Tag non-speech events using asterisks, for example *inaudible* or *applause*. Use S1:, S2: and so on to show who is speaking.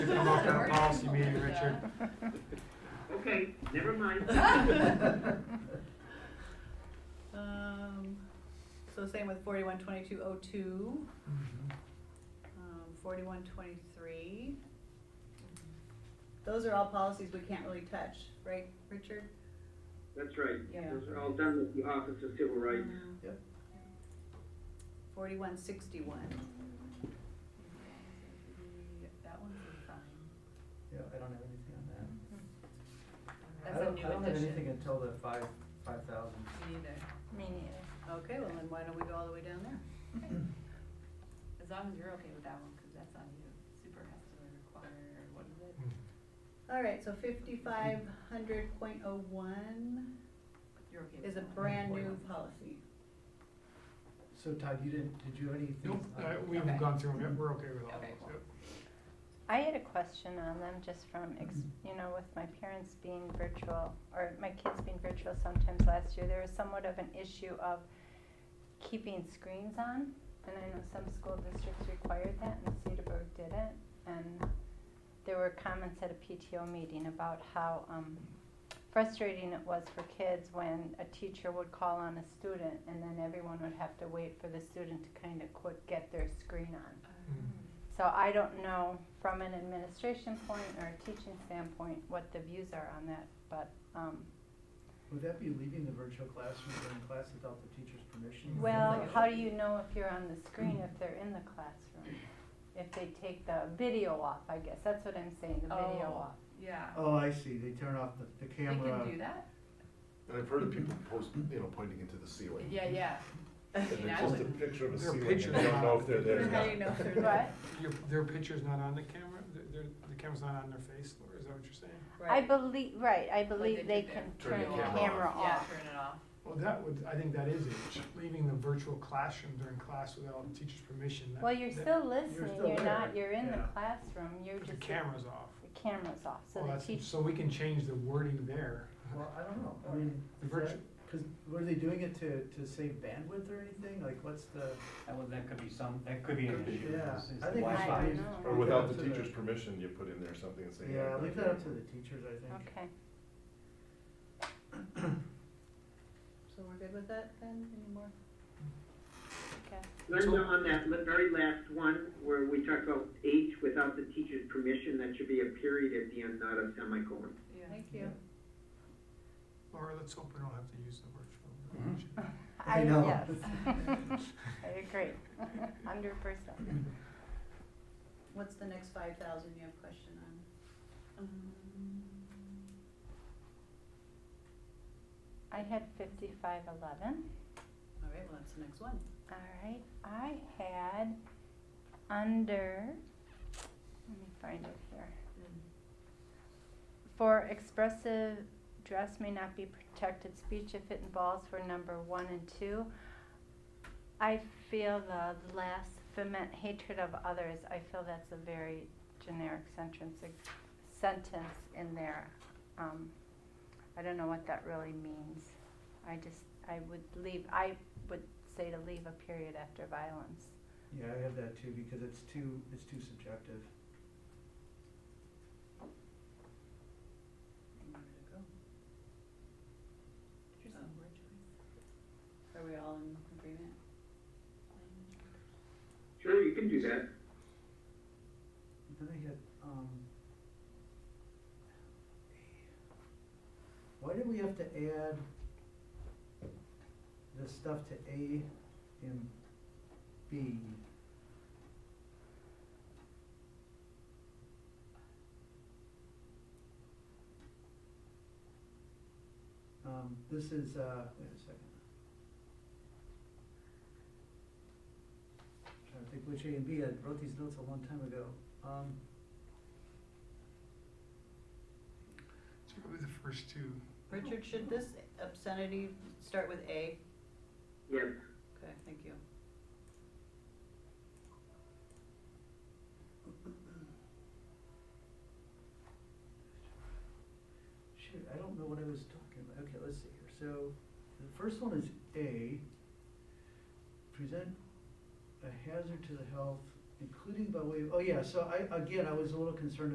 S1: Come up at a policy meeting, Richard.
S2: Okay, never mind.
S3: Um, so same with forty-one twenty-two oh two, um, forty-one twenty-three. Those are all policies we can't really touch, right, Richard?
S2: That's right.
S3: Yeah.
S2: Those are all done with the Office of Civil Rights.
S4: Yep.
S3: Mm-hmm. Forty-one sixty-one. That one's fine.
S4: Yeah, I don't have anything on that. I
S5: That's a
S4: don't, I don't
S5: new
S4: have anything
S5: addition.
S4: until the five, five thousand.
S3: Me neither.
S5: Me neither.
S3: Okay, well then why don't we go all the way down there?
S5: As long as you're okay with that one, because that's on you. Super has to require, what is it?
S3: All right, so fifty-five hundred point oh one
S5: You're okay with
S3: is a
S5: that one?
S3: brand new policy.
S4: So Todd, you didn't, did you have anything?
S1: Nope,
S4: on-
S1: uh, we haven't
S5: Okay.
S1: gone through them yet, we're okay with all
S5: Okay,
S1: those.
S5: cool.
S1: yep.
S6: I had a question on them just from, ex- you know, with my parents being virtual, or my kids being virtual sometimes last year, there was somewhat of an issue of keeping screens on, and I know some school districts required that, and Cedarburg didn't, and there were comments at a PTO meeting about how, um, frustrating it was for kids when a teacher would call on a student, and then everyone would have to wait for the student to kind of quit, get their screen on.
S5: Um,
S6: So I don't know from an administration point or a teaching standpoint what the views are on that, but, um,
S4: Would that be leaving the virtual classroom during class without the teacher's permission?
S6: well, how do you know if you're on the screen if they're in the classroom? If they take the video off, I guess, that's what I'm saying, the video
S5: Oh.
S6: off.
S5: Yeah.
S4: Oh, I see, they turn off the, the
S5: They
S4: camera.
S5: can do that?
S7: And I've heard of people post, you know, pointing into the ceiling.
S5: Yeah, *laughs* yeah. I
S7: *laughs* And
S5: mean,
S7: they
S5: I
S7: post a
S5: wouldn't-
S7: picture of a
S1: There are
S7: ceiling and
S1: pictures
S7: they don't know
S1: on
S7: if
S1: it.
S7: they're there or
S3: How do
S7: not.
S3: you know if they're
S6: What?
S1: *laughs* Your, their picture's not on the camera, Their- their, the camera's not on their face, Laura, is that what you're saying?
S6: I
S3: Right.
S6: believe, right, I
S5: they
S6: believe they
S5: did
S6: can
S7: there.
S6: turn
S7: Turn
S6: the
S7: the camera
S6: camera
S7: off.
S5: Yeah,
S6: off.
S5: turn it off.
S1: Well, that would, I think that is it, leaving the virtual classroom during class without the teacher's permission. that-
S6: Well, you're
S1: that-
S6: still listening,
S4: still
S6: you're not,
S4: there,
S6: you're in the
S4: yeah.
S6: classroom, you're
S1: but The Oh,
S6: just,
S1: camera's off.
S6: the camera's off, so
S1: Well,
S6: the
S1: that's-
S6: teacher,
S1: So we can change the wording there.
S4: Well, I don't know, I mean,
S1: The
S4: is that,
S1: virtu-
S4: cause were they doing it to, to save bandwidth or anything? Like, what's the,
S8: That would, that could be some, that could be an issue.
S4: yeah,
S8: is- is
S4: I
S8: the
S4: think we
S8: Wi-Fi.
S6: I
S4: should leave.
S6: don't know.
S7: Or
S4: leave it
S7: without
S4: up
S7: the
S4: to
S7: teacher's permission, you put in there something and say.
S4: Yeah,
S7: "I'm
S4: leave
S7: not
S4: that up
S7: here."
S4: to the teachers, I think.
S6: okay. *laughs*
S3: So we're good with that then, any more?
S2: Linda, on that li- very last one, where we talked about H without the teacher's permission, that should be a period at the end, not a semicolon.
S5: Yeah.
S3: Thank you.
S1: Laura, let's hope we don't have to use the virtual.
S4: I
S6: I,
S4: know.
S6: yes. *laughs*
S1: *laughs*
S6: I agree, *laughs* hundred percent.
S3: What's the next five thousand you have question on?
S6: I had fifty-five eleven.
S3: All right, well, that's the next one.
S6: All right, I had under, let me find it here. For expressive dress may not be protected speech if it involves for number one and two. I feel the last foment hatred of others, I feel that's a very generic sentence, a sentence in there. Um, I don't know what that really means. I just, I would leave, I would say to leave a period after violence.
S4: Yeah, I have that too, because it's too, it's too subjective.
S3: Where did it go? Um,
S5: Interesting word choice.
S3: Are we all in agreement?
S2: Sure, you can do that.
S4: Then I had, um, why did we have to add this stuff to A and B? Um, this is, uh, wait a second. Trying to think which A and B, I wrote these notes a long time ago. Um,
S1: It's probably the first two.
S3: Richard, should this obscenity start with A?
S2: Yes.
S3: Okay, thank you.
S4: Shoot, I don't know what I was talking about. Okay, let's see here. So the first one is A, present a hazard to the health, including by way of, oh yeah, so I, again, I was a little concerned